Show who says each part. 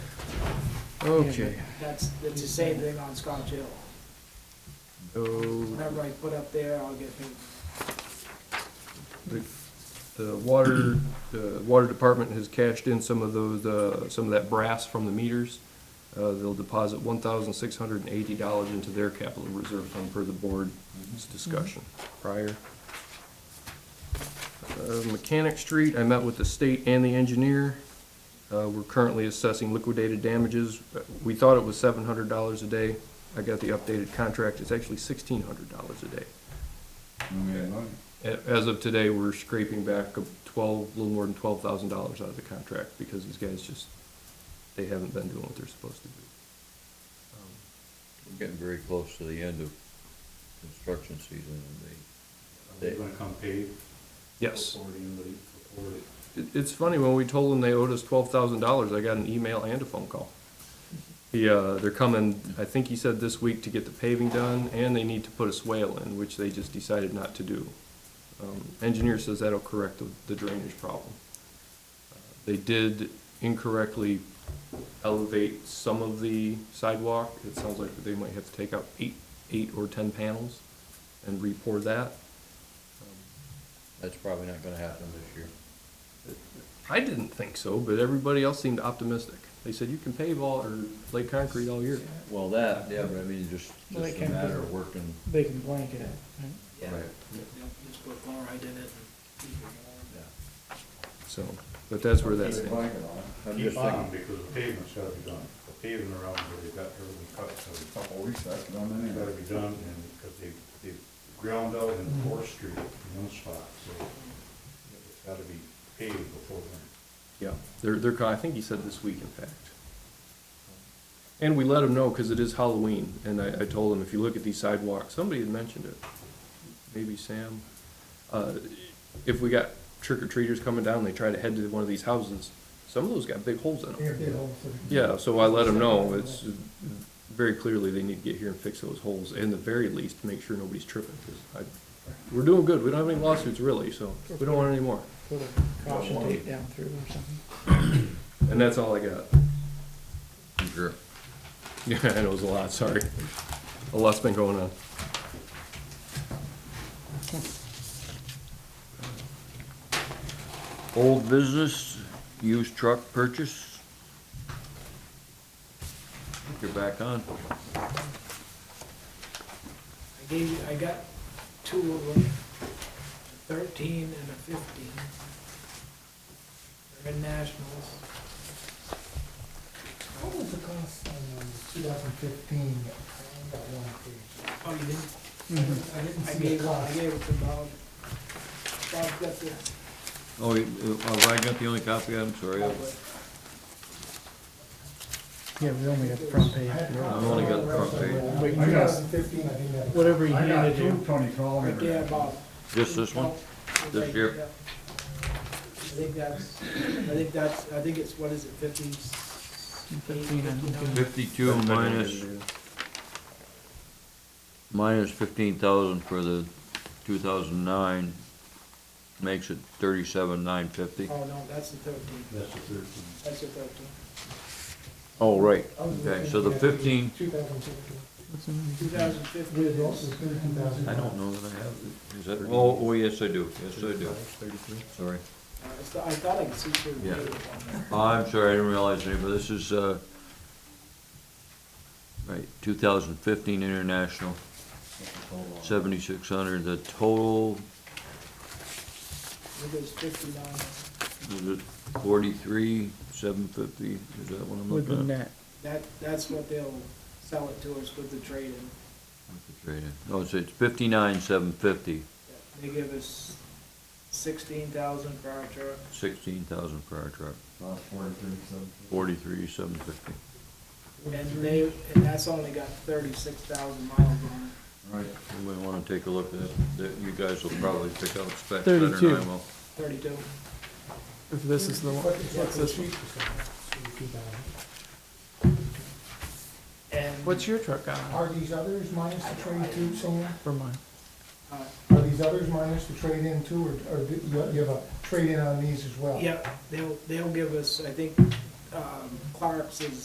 Speaker 1: Okay,
Speaker 2: That's, that's the same thing on Scotch Hill.
Speaker 1: oh,
Speaker 2: Whenever I put up there, I'll get paid.
Speaker 1: the, the water, the water department has cashed in some of those, uh, some of that brass from the meters. Uh, they'll deposit one thousand six hundred and eighty dollars into their capital reserve fund per the board's discussion prior. Uh, Mechanic Street, I met with the state and the engineer. Uh, we're currently assessing liquidated damages. We thought it was seven hundred dollars a day. I got the updated contract. It's actually sixteen hundred dollars a day. A- As of today, we're scraping back a twelve, a little more than twelve thousand dollars out of the contract because these guys just, they haven't been doing what they're supposed to do. Um,
Speaker 3: We're getting very close to the end of construction season and
Speaker 4: Are they gonna come pay?
Speaker 1: Yes,
Speaker 4: Before the end of the- before the-
Speaker 1: it, it's funny, when we told them they owed us twelve thousand dollars, I got an email and a phone call. He, uh, they're coming, I think he said this week to get the paving done and they need to put a swale in, which they just decided not to do. Um, engineer says that'll correct the- the drainage problem. Uh, They did incorrectly elevate some of the sidewalk. It sounds like they might have to take out eight, eight or ten panels and re-pour that. Um,
Speaker 3: that's probably not gonna happen this year.
Speaker 1: I didn't think so, but everybody else seemed optimistic. They said you can pave all, or lay concrete all year.
Speaker 3: Well, that, yeah, but I mean, just,
Speaker 2: Well, they
Speaker 3: just a
Speaker 2: can't
Speaker 3: matter
Speaker 2: do it.
Speaker 3: of working.
Speaker 5: They can blanket it, right?
Speaker 3: Right.
Speaker 2: Yep, Just put chloride in it. and-
Speaker 3: Yeah.
Speaker 1: So, but that's where that stands.
Speaker 3: I'm
Speaker 4: Keep
Speaker 3: just
Speaker 4: on,
Speaker 3: thinking,
Speaker 4: because the pavement's gotta be done, the paving around where they got early cut, so it's
Speaker 6: Couple weeks, that's done
Speaker 4: it's gotta
Speaker 6: anyway.
Speaker 4: be done, and, because they, they ground out in Fourth Street in one spot, so it's gotta be paved before then.
Speaker 1: Yeah, they're, they're, co- I think he said this week, in fact. And we let him know, because it is Halloween, and I, I told him, if you look at these sidewalks, somebody had mentioned it, maybe Sam. uh, If we got trick or treaters coming down, they try to head to one of these houses, some of those got big holes in
Speaker 5: They
Speaker 1: them.
Speaker 5: have their own sort of-
Speaker 1: Yeah, so I let him know, it's, very clearly, they need to get here and fix those holes, and the very least, make sure nobody's tripping, 'cause I, we're doing good, we don't have any lawsuits really, so we don't want any more.
Speaker 5: Sort of caution tape down through or something.
Speaker 1: And that's all I got.
Speaker 3: sure,
Speaker 1: Yeah, I know it was a lot, sorry. A lot's been going on.
Speaker 3: old business, used truck purchase. You're back on.
Speaker 2: I gave you, I got two of them, a thirteen and a fifteen. They're in nationals.
Speaker 5: What was the cost on
Speaker 7: um,
Speaker 5: two thousand fifteen, that one
Speaker 2: Oh, you didn't? I didn't, I gave, one- I gave it to Bob. Bob's got the,
Speaker 3: Oh, you- uh, have I got the only copy, I'm sorry.
Speaker 2: Bob-
Speaker 3: I-
Speaker 5: Yeah, we only got the front page.
Speaker 3: I've only got the front page.
Speaker 5: But
Speaker 6: I
Speaker 5: you got,
Speaker 6: got,
Speaker 5: whatever you
Speaker 6: I got
Speaker 5: handed
Speaker 6: two
Speaker 5: you,
Speaker 6: Tony Collins.
Speaker 2: right there, Bob.
Speaker 3: Just this one? This year?
Speaker 2: Yeah. I think that's, I think that's, I think it's, what is it, fifty?
Speaker 5: Fifteen, I'm looking.
Speaker 3: Fifty-two minus, minus fifteen thousand for the two thousand nine makes it thirty-seven nine fifty.
Speaker 2: Oh, no, that's the thirteen,
Speaker 4: That's the thirteen.
Speaker 2: that's the thirteen.
Speaker 3: Oh, right, okay, so the fifteen,
Speaker 2: Two thousand fifteen
Speaker 5: With
Speaker 2: is, uh,
Speaker 5: also thirteen thousand.
Speaker 3: I don't know that I have it. Is that, oh, oh, yes, I do, yes, I do,
Speaker 1: Thirty-three.
Speaker 3: sorry.
Speaker 2: uh, it's- I thought I could see through the
Speaker 3: Yeah.
Speaker 2: data on there.
Speaker 3: I'm sorry, I didn't realize any, but this is, uh, right, two thousand fifteen international, seventy-six hundred, the total,
Speaker 2: I think it was fifty-nine.
Speaker 3: is it forty-three, seven fifty, is that what I'm
Speaker 5: With the
Speaker 3: looking at?
Speaker 5: net.
Speaker 2: That, that's what they'll sell it to us with the trade-in.
Speaker 3: With the trade-in. No, it's, it's fifty-nine, seven fifty,
Speaker 2: They give us sixteen thousand for our truck.
Speaker 3: sixteen thousand for our truck,
Speaker 6: About forty-three, seven.
Speaker 3: forty-three, seven fifty.
Speaker 2: And they, and that's only got thirty-six thousand miles on it.
Speaker 6: Right.
Speaker 3: Anybody wanna take a look at it? That- You guys will probably pick out specs better than I will.
Speaker 5: 32.
Speaker 2: Thirty-two.
Speaker 5: If this is the one.
Speaker 2: And.
Speaker 5: What's your truck on?
Speaker 7: Are these others minus the trade-in too,
Speaker 5: For mine.
Speaker 2: Uh,
Speaker 7: Sam? Are these others minus the trade-in too, or, or do you you have a trade-in on these as well?
Speaker 2: Yep, they'll, they'll give us, I think, um, Clark's is